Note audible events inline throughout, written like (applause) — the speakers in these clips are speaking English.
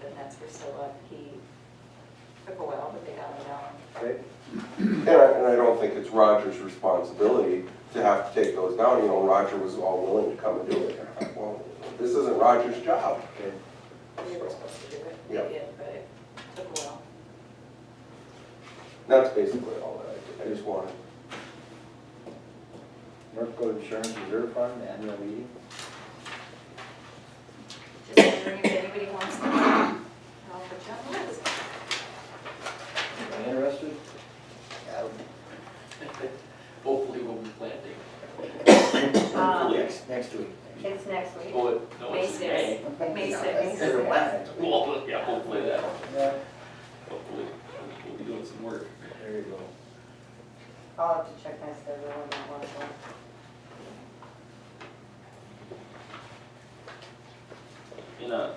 grants were still up, he took a while, but they got it out. Okay. And I, and I don't think it's Roger's responsibility to have to take those down, you know, Roger was all willing to come and do it. Well, this isn't Roger's job. They were supposed to do it, they Yeah. did, but it took a while. That's basically all that I, I just wanted. North Dakota Insurance Reserve Fund, annual meeting. Just wondering if anybody wants to, I'll put you on the list. Am I interested? Uh, Yeah. Hopefully we'll be planting. Um, Next, next week. It's next week, Oh, it- no, May it's in May. sixth. May sixth. Yeah, Well, yeah, hopefully that, hopefully, we'll be doing some work. There you go. I'll have to check my schedule on that one as well. You know, uh,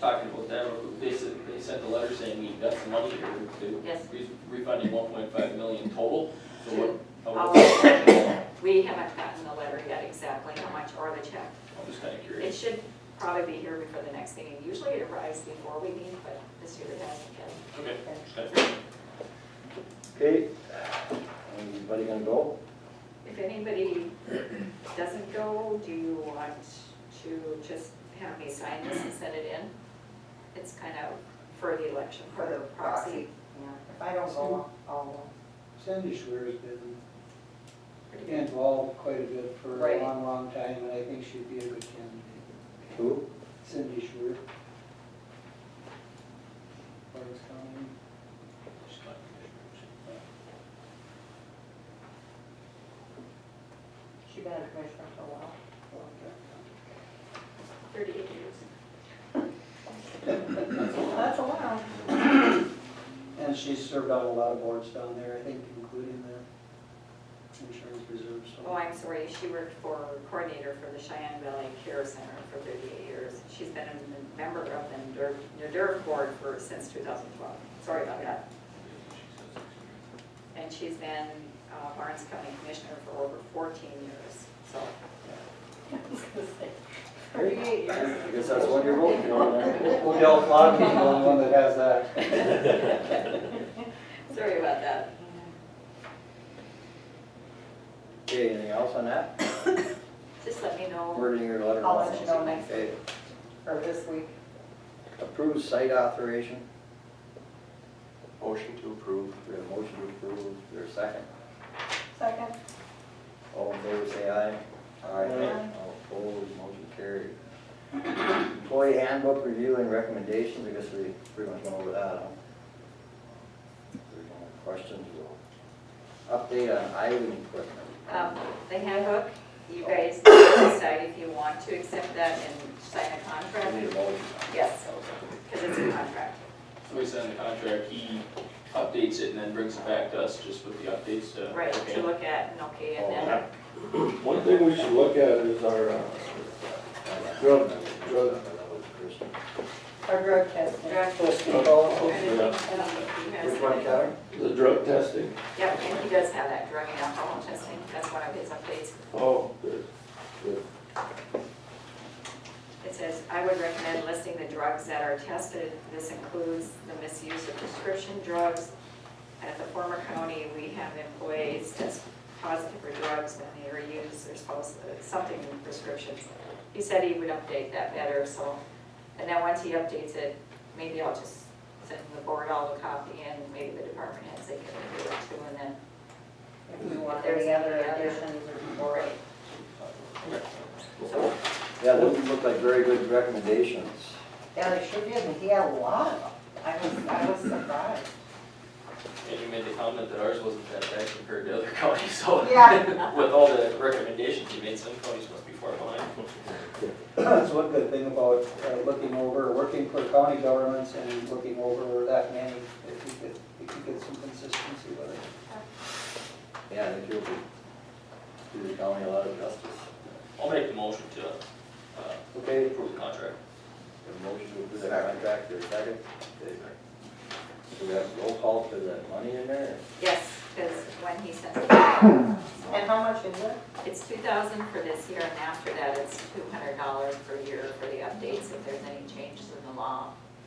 talking about that, they said, they sent a letter saying we got some money here to Yes. re- refunding one point five million total, so what? how I'll- much- I'm (laughs) We haven't gotten the letter yet exactly how much or the check. just kinda It curious. should probably be here before the next meeting. Usually it arrives before we meet, but this year it hasn't yet. Okay, just kinda curious. Okay, anybody gonna go? If anybody doesn't go, do you want to just have me sign this and send it in? It's kind of for the election, for the proxy. If I don't go, I'll go. Cindy Schwer's been Pretty good. involved quite a bit for Right. a long, long time, and I think she'd be a good candidate. Who? Cindy Schwer. Lawrence County. Just kinda curious. She's been a commissioner for a while. Well, yeah. Thirty-eight years. That's a while. And she's served on a lot of boards down there, I think, including the insurance reserve, so. Oh, I'm sorry, she worked for coordinator for the Cheyenne Valley Care Center for 38 years. She's been a member of the E NDRF NDRF board for, since 2012. Sorry about that. And she's been uh, Barnes County Commissioner for over 14 years, so. (laughs) Thirty-eight years. I guess that's what you're voting on, (laughs) right? We'll yell Flonky, the only one that has that. (laughs) Sorry about that. Okay, anything else on that? Just let me know. Wording your letter. I'll let you know next Okay, or this week. approved site authorization. Motion to approve. We have a motion to approve. There's a second. Second. All in favor, say aye. Aye. All opposed, motion carried. Employee handbook review and recommendations, I guess we pretty much went over that, huh? If there's no questions, we'll update on island equipment. Um, The handbook, you guys decide if you want to accept that and sign a We need contract, a motion. Yes. because it's a contract. So we send the contract, he updates it and then brings it back to us just with the updates to. Right, okay. to look at and okay, Oh, and then One thing we should look at is our, uh, Drug- drug. Our drug testing. draft Oh, yeah. Which Which one, Kevin? the drug testing. Yep, and he does have that drug and alcohol testing, that's one of his updates. Oh, good. It says, I would recommend listing the drugs that are tested. This includes the misuse of prescription drugs. At the former county, we have employees test positive for drugs when they are used, there's supposed, something in prescriptions. He said he would update that better, so, and then once he updates it, maybe I'll just send the board all the copy and maybe the department heads, they can do it too, and then If you want any other additions or. Right. So, Yeah, those look like very good recommendations. Yeah, they sure did, and he had a lot of them. I was, I was surprised. And you made the comment that ours wasn't that bad compared to other (laughs) counties, so. Yeah. With all the recommendations you made, some counties must be far behind. (clears throat) That's one good thing about uh, looking over, working for county governments and looking over that many, if you could, if you get some consistency with it. Yeah, I think you'll do the county a lot of justice. I'll make the motion to, uh, Okay, approve the contract. A motion to approve that contract, there's a second. So we have roll call for that money in there? yes, because when he sends it back, And how much is it? it's two thousand for this year, and after that, it's two hundred dollars per year for the updates, if there's any changes in the law,